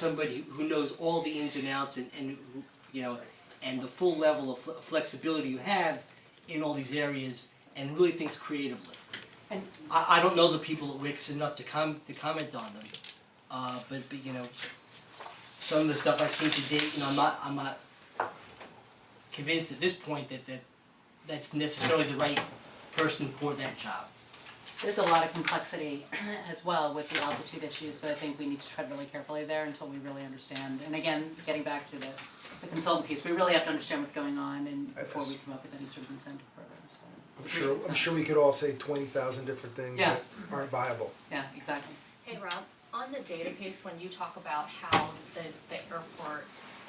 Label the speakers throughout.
Speaker 1: somebody who knows all the ins and outs and, and who- you know, and the full level of fle- flexibility you have in all these areas and really thinks creatively.
Speaker 2: And
Speaker 1: I, I don't know the people at Wix enough to com- to comment on them, uh, but, but you know, some of the stuff I've seen to date, and I'm not, I'm not convinced at this point that, that that's necessarily the right person for that job.
Speaker 2: there's a lot of complexity as well with the altitude issue, so I think we need to tread really carefully there until we really understand. And again, getting back to the, the consultant piece, we really have to understand what's going on and
Speaker 3: I
Speaker 2: before we
Speaker 3: guess.
Speaker 2: come up with any sort of incentive programs.
Speaker 3: I'm sure, I'm sure we could all say twenty thousand different things
Speaker 2: Yeah.
Speaker 3: that aren't viable.
Speaker 2: Yeah, exactly.
Speaker 4: Hey Rob, on the data piece, when you talk about how the, the airport,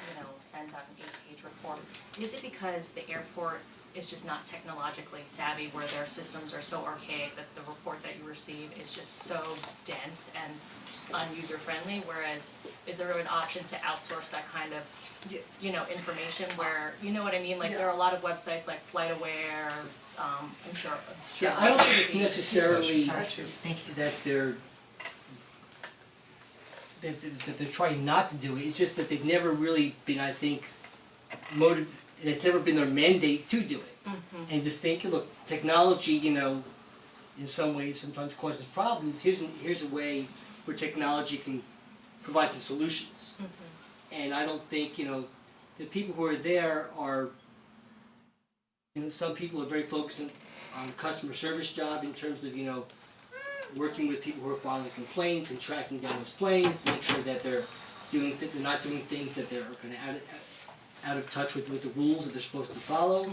Speaker 4: you know, sends out an eight-page report, is it because the airport is just not technologically savvy where their systems are so archaic that the report that you receive is just so dense and unuser-friendly, whereas is there an option to outsource that kind of,
Speaker 1: Yeah.
Speaker 4: you know, information where, you know what I mean? Like, there are a lot of websites like FlightAware, um, I'm sure, I'm sure.
Speaker 1: Yeah, I don't think it's necessarily
Speaker 4: Sorry.
Speaker 1: that they're that that that they're trying not to do it, it's just that they've never really been, I think, motiv- it's never been their mandate to do it.
Speaker 4: Mm-hmm,
Speaker 1: And just think, look, technology, you know, in some ways sometimes causes problems, here's an, here's a way where technology can provide some solutions. And I don't think, you know, the people who are there are, you know, some people are very focused on, on customer service job in terms of, you know, working with people who are filing complaints and tracking down those claims, to make sure that they're doing, that they're not doing things that they're kind of out of, out of touch with, with the rules that they're supposed to follow.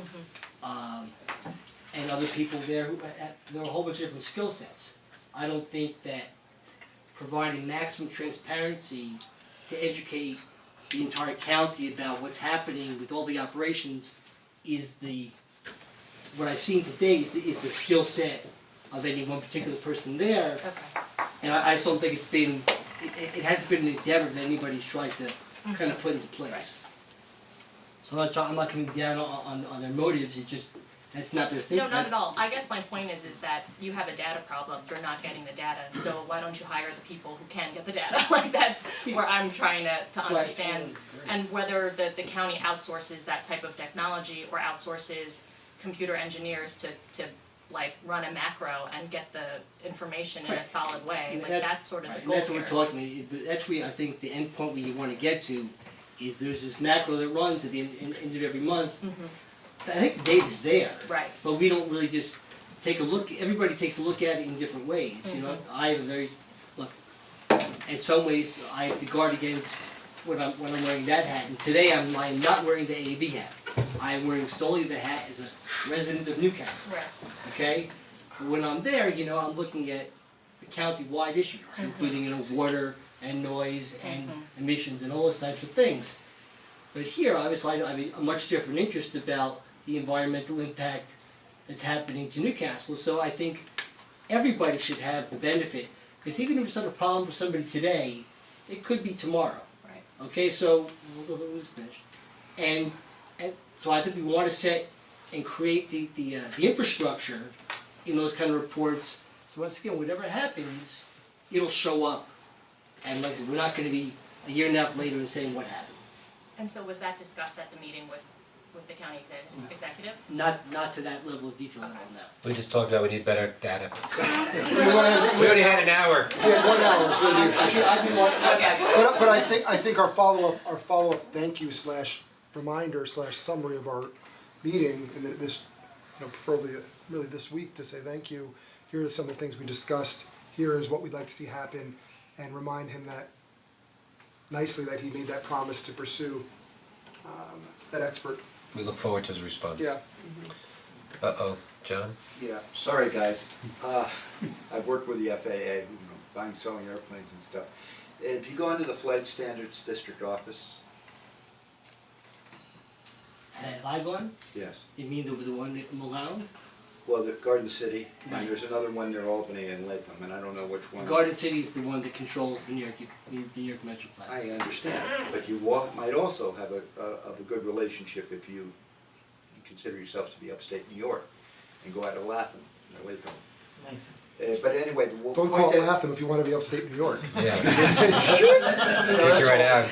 Speaker 1: Um, and other people there who, ha- there are a whole bunch of different skill sets. I don't think that providing maximum transparency to educate the entire county about what's happening with all the operations is the, what I've seen today is the, is the skill set of any one particular person there.
Speaker 4: Okay,
Speaker 1: And I, I just don't think it's been, it, it- it hasn't been an endeavor that anybody's tried to kind of put into
Speaker 4: Mm-hmm. Right.
Speaker 1: place. So I'm not, try- I'm not coming down on, on, on their motives, it just, that's not their thing.
Speaker 4: No, not at all. I guess my point is, is that you have a data problem, you're not getting the data, so why don't you hire the people who can get the data? Like, that's where I'm trying to, to
Speaker 1: Right.
Speaker 4: understand. And whether the, the county outsources that type of technology or outsources computer engineers to, to like run a macro and get the information in a
Speaker 1: Right.
Speaker 4: solid way,
Speaker 1: And
Speaker 4: like
Speaker 1: that-
Speaker 4: that's sort of the
Speaker 1: Right, and
Speaker 4: goal
Speaker 1: that's
Speaker 4: here.
Speaker 1: what we're talking, about. It- but that's where I think the end point we wanna get to, is there's this macro that runs at the end, end- end of every month.
Speaker 4: Mm-hmm.
Speaker 1: I think the data's there.
Speaker 4: Right,
Speaker 1: but we don't really just take a look, everybody takes a look at it in different ways, you know, I have a very, look, in some ways, I have to guard against when I'm, when I'm wearing that hat, and today I'm, I'm not wearing the AAB hat. I am wearing solely the hat as a resident of Newcastle,
Speaker 4: right,
Speaker 1: okay? When I'm there, you know, I'm looking at the county-wide issues, including, you know, water and noise and emissions and all those types of things. But here, obviously, I I have a much different interest about the environmental impact that's happening to Newcastle. So I think everybody should have the benefit, because even if it's not a problem for somebody today, it could be tomorrow.
Speaker 4: right.
Speaker 1: Okay, so we'll go who's finished. And, and so I think we want to set and create the, the, uh, the infrastructure in those kind of reports. So once again, whatever happens, it'll show up. And like I said, we're not going to be a year and a half later and saying what happened.
Speaker 4: And so was that discussed at the meeting with, with the county exec- executive?
Speaker 1: Not, not to that level of detail, I don't know.
Speaker 5: We just talked about we need better data.
Speaker 3: We wanna-
Speaker 5: We already had an hour.
Speaker 3: we had one hour, so it'd be
Speaker 1: I do, I do want,
Speaker 4: Okay,
Speaker 3: But but I think I think our follow up our follow up thank you slash reminder slash summary of our meeting and that this you know preferably uh, really this week to say thank you. Here are some of the things we discussed. Here is what we'd like to see happen, and remind him that nicely that he made that promise to pursue um, that expert.
Speaker 5: We look forward to his response.
Speaker 3: Yeah.
Speaker 5: Uh-oh, John?
Speaker 6: Yeah, sorry guys. Uh, I've worked with the FAA, you know, buying, selling airplanes and stuff. If you go into the Flight Standards District Office,
Speaker 1: have I gone?
Speaker 6: yes,
Speaker 1: You mean the, the one in Malone?
Speaker 6: well, the Garden City,
Speaker 1: Right.
Speaker 6: and there's another one near Albany and Latham, and I don't know which one.
Speaker 1: Garden City is the one that controls the New York, the New York Metroplex.
Speaker 6: I uh, understand, but you wa- might also have a, a- of a good relationship if you consider yourself to be upstate New York and go out of Latham, or Latham. Uh, but anyway, the w-
Speaker 3: Don't
Speaker 6: point
Speaker 3: call it
Speaker 6: that-
Speaker 3: Latham if you wanna be upstate New York.
Speaker 5: Yeah. Take you right out.